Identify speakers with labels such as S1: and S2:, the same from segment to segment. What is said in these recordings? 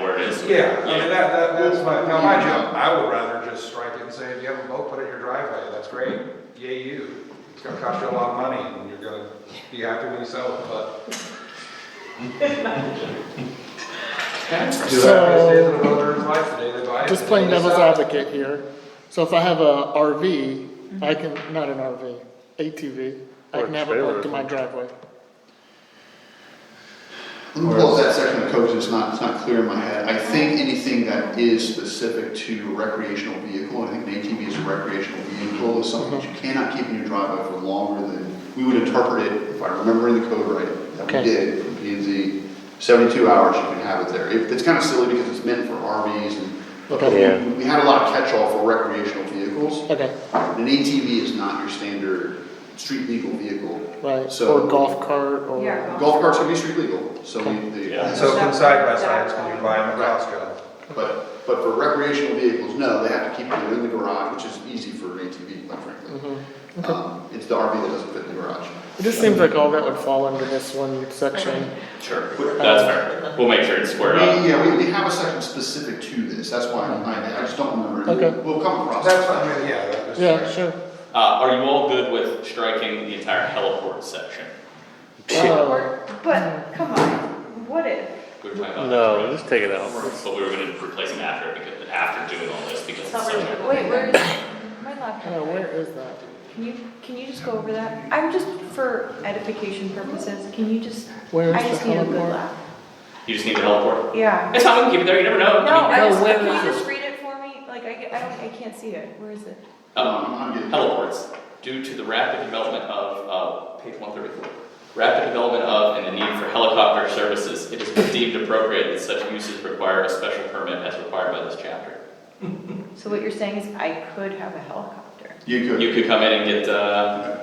S1: Yeah, I mean, that, that, that's my, now mind you,
S2: Yeah.
S1: I would rather just strike it and say, if you have a boat, put it in your driveway, that's great, yay you. It's gonna cost you a lot of money and you're gonna be happy when you sell it, but. Do that, best days of a boater's life, the day they buy it.
S3: Just
S1: the day
S3: playing
S1: they
S3: devil's
S1: sell it.
S3: advocate here, so if I have a RV, I can, not an RV, ATV, I
S4: Or
S3: can have it
S4: trailer,
S3: parked in
S4: I
S3: my driveway.
S2: Well, that section of code is not, it's not clear in my head. I think anything that is specific to recreational vehicle, I think an ATV is a recreational vehicle, is something that you cannot keep in your driveway for longer than, we would interpret it, if I remember the code right, that
S3: Okay.
S2: we did, in P and Z, seventy-two hours you can have it there. It- It's kind of silly because it's meant for RVs and,
S3: Okay.
S4: Yeah.
S2: we- we had a lot of catch-all for recreational vehicles.
S3: Okay,
S2: An ATV is not your standard street legal vehicle.
S3: right,
S2: So-
S3: or golf cart, or,
S5: Yeah.
S2: Golf carts can be street legal, so we, they.
S4: Yeah.
S1: So can side by sides, can you buy them at Costco?
S2: But, but for recreational vehicles, no, they have to keep it in the garage, which is easy for an ATV, quite frankly. Um, It's the RV that doesn't fit in the garage.
S3: Mm-hmm. it just seems like all that would fall under this one section.
S2: Sure.
S6: That's uh, fair. We'll make sure it's squared up.
S2: Yeah, we, we have a section specific to this, that's why I, I just don't remember.
S3: Okay.
S2: We'll come across.
S1: That's, what I mean, yeah, that was-
S3: Yeah, sure.
S6: Uh, are you all good with striking the entire heliport section?
S3: Uh,
S5: But, come on, what if?
S6: We were talking about.
S4: No, just take it out.
S6: But we were gonna replace it after, because, after doing all this, because it's such a.
S5: Wait, where is, my
S3: yeah,
S5: laptop?
S3: uh, where is that?
S5: Can you, can you just go over that? I'm just, for edification purposes, can you just,
S3: Where is
S5: I
S3: the
S5: just need a good
S3: heliport?
S5: lap.
S6: You just need the heliport?
S5: Yeah.
S6: It's not, we can keep it there, you never know.
S5: No, I
S3: No,
S5: just,
S3: where
S5: can
S3: is
S5: you
S3: it?
S5: just read it for me? Like, I, get- I don't, I can't see it. Where is it?
S6: Um,
S2: Um, I'm getting-
S6: heliports, due to the rapid development of, uh, page one thirty-four. Rapid development of and the need for helicopter services, it is deemed appropriate that such uses require a special permit as required by this chapter.
S5: So what you're saying is I could have a helicopter,
S2: You could.
S6: You could come in and get, uh,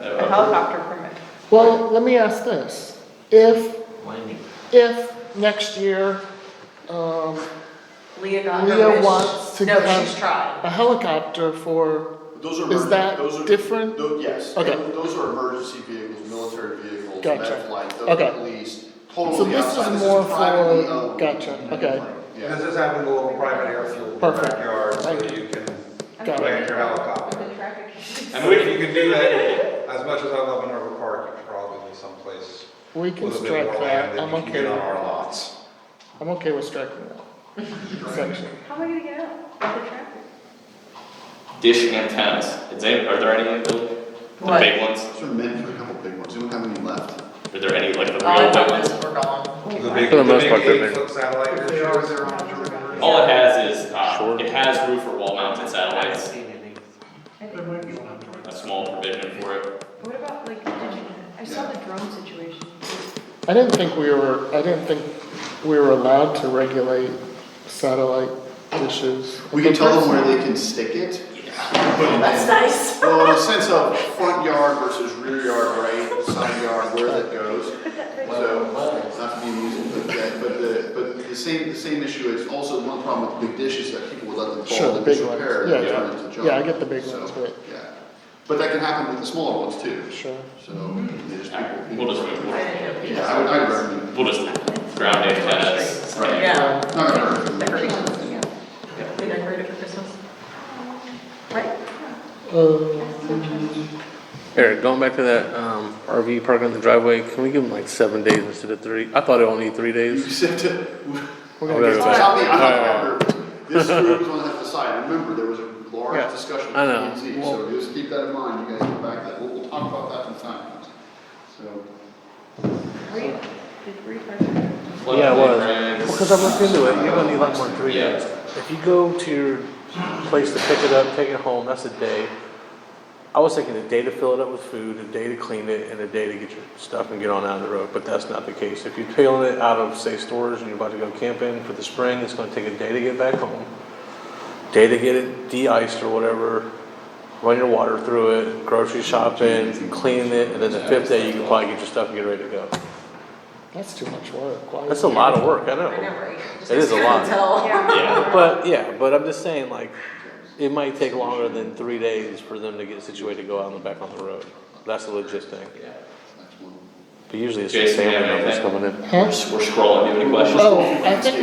S6: a-
S5: a helicopter permit.
S3: Well, let me ask this, if, if next year, um,
S7: Leah got
S3: Leah
S7: her wish.
S3: wants to
S7: No,
S3: have-
S7: she's tried.
S3: a helicopter for,
S2: Those are
S3: Is
S2: emergen-
S3: that
S2: those are-
S3: different?
S2: tho- Yes.
S3: Okay.
S2: Tho- Those are emergency vehicles, military vehicles,
S3: Gotcha.
S2: med flight, those
S3: Okay.
S2: are police,
S3: so
S2: totally
S3: this
S2: outside.
S3: is more
S2: privately
S3: for,
S2: owned.
S3: gotcha, okay.
S2: Yeah.
S1: This is having a little private air fuel in your
S3: Perfect.
S1: backyard, so
S3: Thank
S1: you can
S3: Got it.
S1: land your helicopter.
S7: The traffic.
S6: I
S1: So
S6: mean, we
S1: if
S6: can,
S1: you could do that, as much as I love Minerva Park, you could probably be someplace
S3: We
S1: with
S3: can
S1: a bit
S3: strike
S1: more land
S3: that,
S1: than
S3: I'm
S1: you can get
S3: okay,
S1: on our lots.
S3: I'm okay with striking that section.
S5: How am I gonna get out of the traffic?
S6: dish antennas, is any, are there any in the building? The
S7: What?
S6: big ones,
S2: Those are meant for a couple big ones, we don't have any left.
S6: are there any, like the
S7: All I
S6: real big
S7: thought
S6: ones?
S7: was we're gone.
S1: The big,
S4: For
S1: the
S4: the most
S1: big
S4: part, they're big.
S1: eight-foot satellite dish.
S6: All it has is, uh,
S4: Sure.
S6: it has roof or wall mounted satellites, a small provision for it.
S5: What about like, did you, I saw the drone situation.
S3: I didn't think we were, I didn't think we were allowed to regulate satellite dishes.
S2: We can tell them where they can stick it.
S7: That's nice.
S2: Well, in a sense of front yard versus rear yard, right, side yard, where that goes. So, not to be amusing, but that, but the, but the same, the same issue is also one problem with the big dishes that people would let them
S3: Sure,
S2: fall,
S3: the
S2: they
S3: big
S2: disrepair,
S3: ones.
S2: and
S3: Yeah,
S2: turn into junk.
S3: yeah, I get the big
S2: So,
S3: ones, but-
S2: Yeah, but that can happen with the smaller ones too,
S3: Sure.
S2: so, they just.
S6: Alright, We'll just move,
S7: I
S6: we'll,
S7: didn't know.
S2: Yeah, I would, I'd recommend,
S6: we'll just ground antennas.
S2: Right.
S7: Yeah.
S3: Um,
S2: not gonna hurt.
S7: The green ones, yeah. They decorated for Christmas. Right?
S3: Uh,
S4: Eric, going back to that, um, RV parking in the driveway, can we give them like seven days instead of three? I thought it only three
S2: You
S4: days.
S2: said to,
S3: We're
S4: Oh,
S3: gonna
S4: there
S3: get
S4: it is.
S3: started.
S2: Tell me, I'm
S4: Alright, alright.
S2: not a member. This group is gonna have to decide. Remember, there was a large
S3: Yeah,
S2: discussion
S4: I
S2: with
S4: know.
S2: P and Z, so just keep that in mind. You guys come back, to that, we'll, we'll talk about that in time. So,
S5: Reed, did Reed park?
S4: Yeah, it was.
S6: Friends.
S4: Because I looked into it, you're gonna need like more than three
S6: Yeah.
S4: days. If you go to your place to pick it up, take it home, that's a day. I was thinking a day to fill it up with food, a day to clean it, and a day to get your stuff and get on out of the road, but that's not the case. If you're peeling it out of, say, stores and you're about to go camping for the spring, it's gonna take a day to get back home, day to get it de-iced or whatever, run your water through it, grocery shopping, cleaning it, and then the fifth day, you can probably get your stuff and get ready to go.
S3: That's too much work. Why
S4: That's
S3: is
S4: a
S3: it-
S4: lot of work, I know.
S7: I know, right?
S4: It is a lot.
S7: Tell.
S6: Yeah,
S4: But, yeah, but I'm just saying, like, it might take longer than three days for them to get situated, to go out and back on the road. That's the legit thing.
S2: next one.
S4: But usually it's just
S6: Jason, you have
S4: family members
S6: anything?
S4: coming in.
S3: Huh?
S6: we're scrolling, do you have any questions?
S3: Oh, I think